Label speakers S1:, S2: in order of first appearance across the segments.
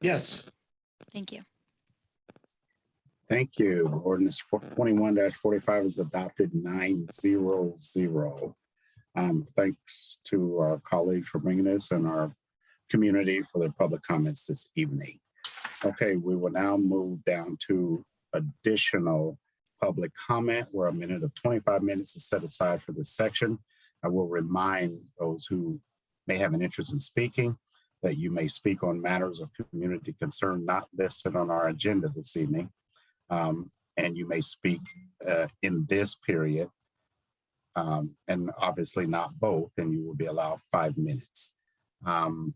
S1: Yes.
S2: Thank you.
S3: Thank you. Ordinance twenty-one forty-five is adopted nine zero zero. Um, thanks to our colleagues for bringing this and our community for their public comments this evening. Okay, we will now move down to additional public comment where a minute of twenty-five minutes is set aside for this section. I will remind those who may have an interest in speaking that you may speak on matters of community concern not listed on our agenda this evening. Um, and you may speak uh, in this period. Um, and obviously not both, and you will be allowed five minutes. Um,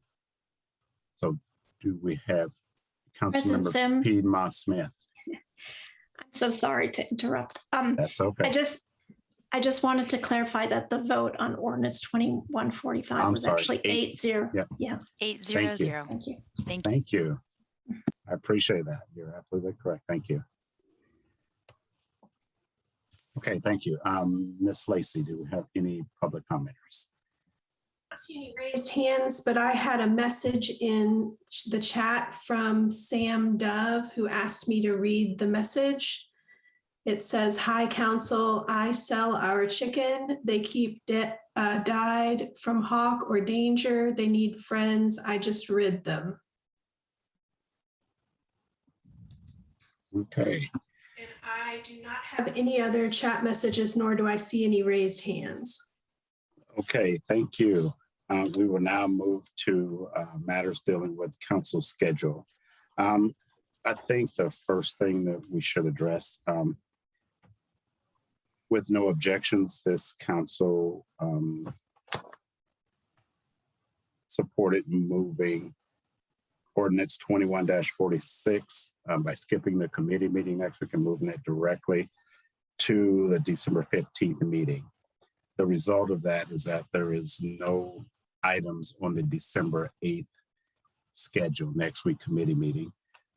S3: so do we have
S4: President
S3: Councilmember
S4: Sims,
S3: Piedmont Smith?
S4: I'm so sorry to interrupt. Um,
S3: That's
S4: I
S3: okay.
S4: just, I just wanted to clarify that the vote on ordinance twenty-one forty-five
S3: I'm
S4: was
S3: sorry,
S4: actually
S3: eight.
S4: eight zero.
S3: Yeah.
S4: Yeah,
S2: Eight zero
S3: you.
S2: zero.
S4: thank you.
S2: Thank you.
S3: Thank you. I appreciate that. You're absolutely correct. Thank you. Okay, thank you. Um, Ms. Lacy, do we have any public commenters?
S5: not see any raised hands, but I had a message in ch- the chat from Sam Dove, who asked me to read the message. It says, "Hi, council, I sell our chicken. They keep de- uh, died from hawk or danger. They need friends. I just rid them."
S3: Okay,
S5: And I do not have any other chat messages, nor do I see any raised hands.
S3: okay, thank you. Uh, we will now move to uh, matters dealing with council schedule. Um, I think the first thing that we should address, um, with no objections, this council um, supported moving ordinance twenty-one forty-six um, by skipping the committee meeting next week and moving it directly to the December fifteenth meeting. The result of that is that there is no items on the December eighth schedule, next week committee meeting.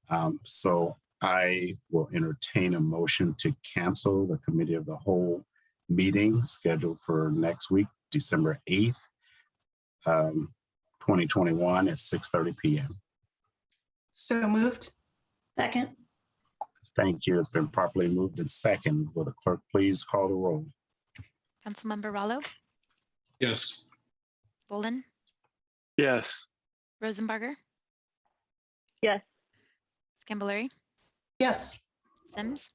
S3: Um, so I will entertain a motion to cancel the committee of the whole meeting scheduled for next week, December eighth, um, twenty twenty-one at six thirty PM.
S6: So moved?
S4: Second,
S3: Thank you. It's been properly moved and second. Will the clerk please call the roll?
S2: Councilmember Rallo,
S1: Yes.
S2: Bolin,
S7: yes,
S2: Rosenbarger.
S8: Yes.
S2: Scambolery,
S6: Yes.
S2: Sims,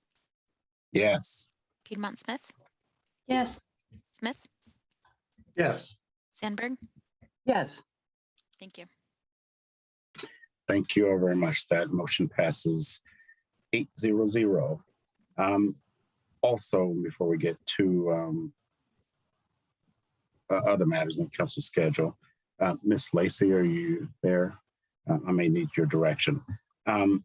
S3: Yes.
S2: Piedmont Smith,
S4: yes,
S2: Smith,
S1: Yes.
S2: Sandberg.
S6: Yes.
S2: Thank you.
S3: Thank you all very much. That motion passes eight zero zero. Um, also, before we get to um, uh, other matters in the council schedule, uh, Ms. Lacy, are you there? Uh, I may need your direction. Um,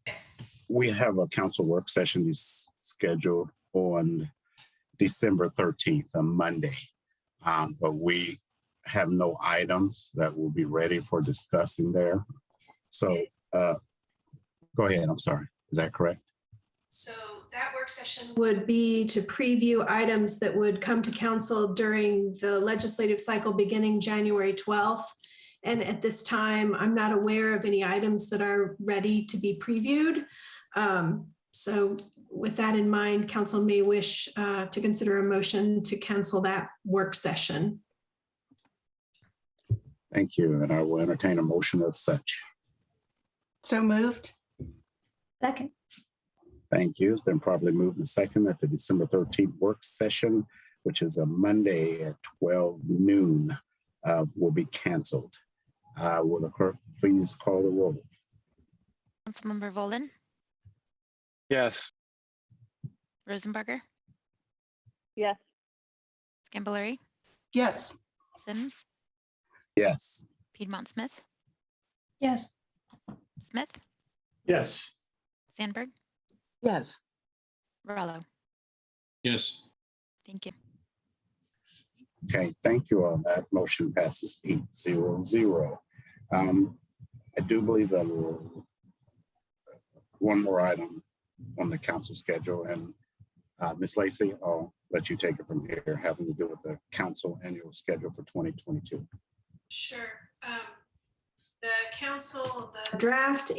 S3: we have a council work session is scheduled on December thirteenth, a Monday. Um, but we have no items that will be ready for discussing there. So, uh, go ahead. I'm sorry. Is that correct?
S5: So that work session would be to preview items that would come to council during the legislative cycle beginning January 12th. And at this time, I'm not aware of any items that are ready to be previewed. Um, So with that in mind, council may wish uh, to consider a motion to cancel that work session.
S3: Thank you. And I will entertain a motion of such.
S6: So moved?
S4: second,
S3: Thank you. It's been properly moved and second at the December thirteenth work session, which is a Monday at twelve noon, uh, will be canceled. Uh, will the clerk please call the roll?
S2: Councilmember Bolin,
S7: yes,
S2: Rosenbarger,
S8: yes,
S2: Scambolery,
S6: Yes.
S2: Sims,
S3: Yes.
S2: Piedmont Smith,
S4: yes.
S2: Smith,
S1: Yes.
S2: Sandberg,
S6: Yes.
S2: Rallo.
S1: Yes.
S2: Thank you.
S3: Okay, thank you all. That motion passes eight zero zero. Um, I do believe that we'll- one more item on the council schedule and uh, Ms. Lacy, I'll let you take it from here, having to do with the council annual schedule for twenty twenty-two.
S5: Sure. The Um, council, the draft